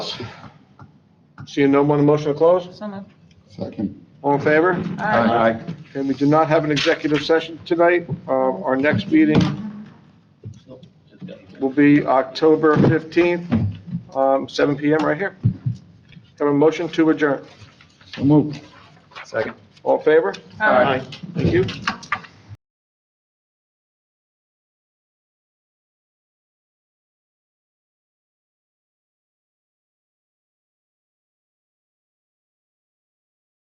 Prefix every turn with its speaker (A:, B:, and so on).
A: Seeing no one, a motion to close?
B: So moved.
C: Second.
A: All in favor? And we do not have an executive session tonight. Uh, Our next meeting will be October 15th, um, 7 PM right here. Have a motion to adjourn.
C: So moved.
D: Second.
A: All in favor?
B: Aye.
A: Thank you.